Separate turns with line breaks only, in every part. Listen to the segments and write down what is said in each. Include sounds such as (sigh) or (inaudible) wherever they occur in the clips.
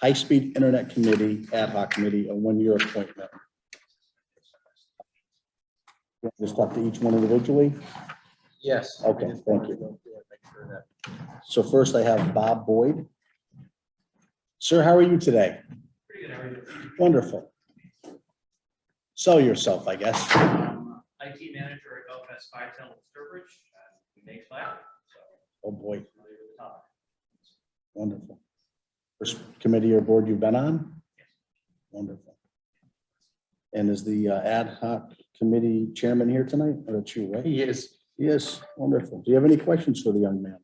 High-Speed Internet Committee Ad Hoc Committee, a one-year appointment. Just talk to each one individually.
Yes.
Okay,
Just
thank
wanted
you.
to go through and make sure that-
So first I have Bob Boyd. Sir, how are you today?
Pretty good, how are you?
Wonderful. Sell yourself, I guess.
Um, IT manager at Belfast Five Town with Sturbridge, uh, we make flat, so.
Oh, boy,
familiar with the topic.
wonderful. First committee or board you've been on?
Yes.
Wonderful. And is the uh, ad hoc committee chairman here tonight? Or it's you, right?
He is.
Yes, wonderful. Do you have any questions for the young man?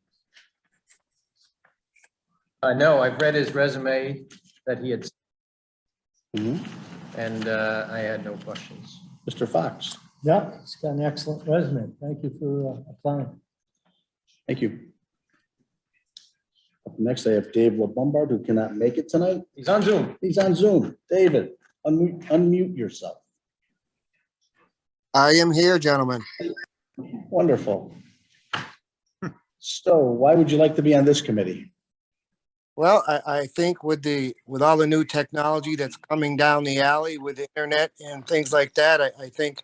I know, Uh, I've read his resume that he had,
Mm-hmm.
and uh, I had no questions.
Mr. Fox,
Yeah, it's got an excellent resume. Thank you for uh, applying.
thank you. Up next, I have Dave LaBombard, who cannot make it tonight.
He's on Zoom.
He's on Zoom. David, unmute unmute yourself.
I am here, gentlemen.
Wonderful. So why would you like to be on this committee?
Well, I, I think with the, with all the new technology that's coming down the alley with the internet and things like that, I, I think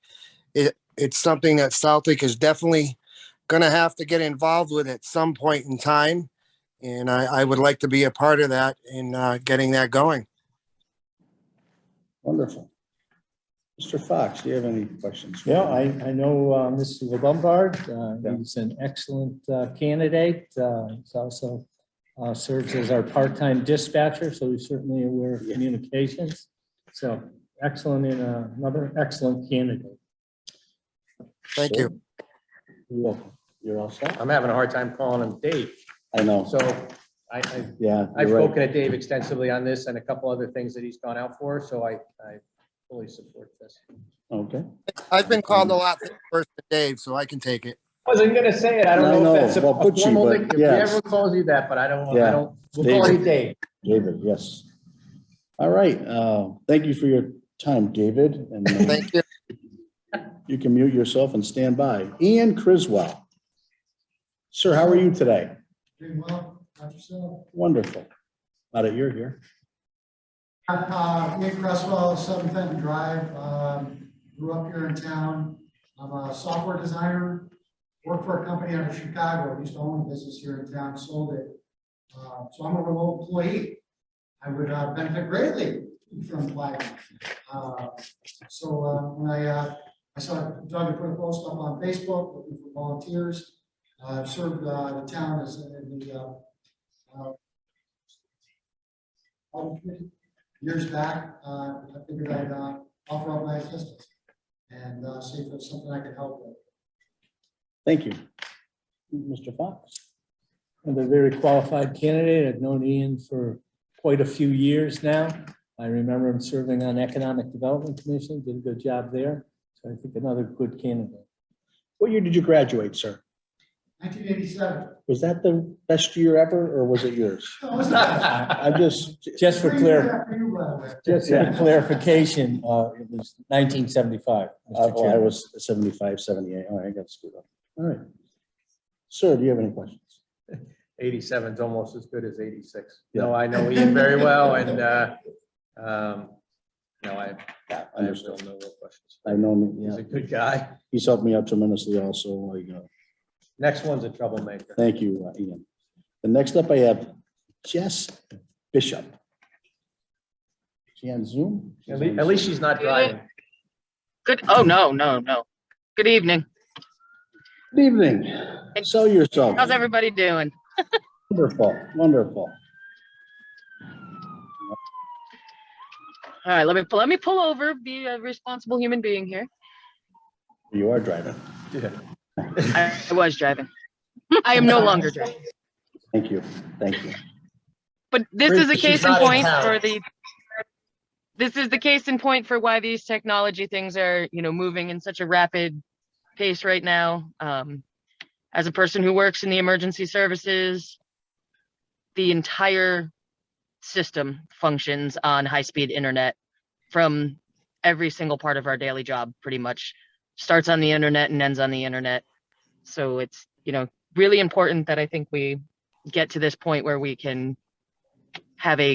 it, it's something that Southwick is definitely gonna have to get involved with at some point in time. And I, I would like to be a part of that in, uh, getting that going.
Wonderful. Mr. Fox, do you have any questions? for
Yeah,
me?
I, I know uh, Mr. Lombard. uh, He's an excellent uh, candidate. Uh, He's also uh, serves as our part-time dispatcher, so he's certainly aware of
Yeah.
communications. So excellent and uh, another excellent candidate.
Thank you.
You're welcome. You're all set?
I'm having a hard time calling him Dave.
I know.
So I, I,
Yeah.
I've
you're right.
spoken to Dave extensively on this and a couple other things that he's gone out for, so I, I fully support this.
Okay.
I've been called a lot first to Dave, so I can take it.
Wasn't gonna say it. I
I
don't know
know,
if that's a
well,
a
put you,
formal,
but
nick- if he
yes.
ever calls you that, but I don't,
Yeah.
I don't, we'll call
Dave.
you Dave. (laughs)
David, yes. All right. uh, Thank you for your time, David. And uh,
Thank you.
you can mute yourself and stand by. Ian Criswell. Sir, how are you today?
Doing well, not yourself.
Wonderful. Now that you're here.
Uh, Nick Cresswell, Seven Fenton Drive, um, grew up here in town. I'm a software designer, worked for a company out of Chicago, used to own a business here in town, sold it. Uh, so I'm a remote employee. I would uh, benefit greatly from applying. Uh, so, uh, when I, uh, I saw Doug had put a post up on Facebook looking for volunteers. Uh, I've served, uh, the town as, in the, uh, uh, Home Committee years back, uh, I figured I'd, uh, offer up my assistance and, uh, see if there's something I could help with.
Thank you. Mr. Fox?
And a very qualified candidate. I've known Ian for quite a few years now. I remember him serving on Economic Development Commission, did a good job there. So I think another good candidate.
What year did you graduate, sir?
Nineteen eighty-seven.
Was that the best year ever or was it yours? I just,
Just for clar, just for
Yeah.
clarification, uh, it was nineteen seventy-five.
uh, oh, I was 75, 78. All right, I got screwed up. All right. Sir, do you have any questions?
87 is almost as good as 86. No, I know Ian very well and, uh, um, no, I,
Yeah,
I have no real questions.
I know, him,
He's
yeah,
a good guy.
he's helped me out tremendously also. like, uh,
Next one's a troublemaker.
Thank you, uh, Ian. The next up I have Jess Bishop. She on Zoom?
At least, at least she's not driving.
Good, oh, no, no, no. Good evening.
Good evening. Sell yourself.
How's everybody doing?
Wonderful, wonderful.
All right, let me, let me pull over, be a responsible human being here.
You are driving.
I I was driving. I am no longer driving.
Thank you, thank you.
But this is a
She's
case in
not in
point
town.
for the, this is the case in point for why these technology things are, you know, moving in such a rapid pace right now. Um, as a person who works in the emergency services, the entire system functions on high-speed internet from every single part of our daily job, pretty much. Starts on the internet and ends on the internet. So it's, you know, really important that I think we get to this point where we can have a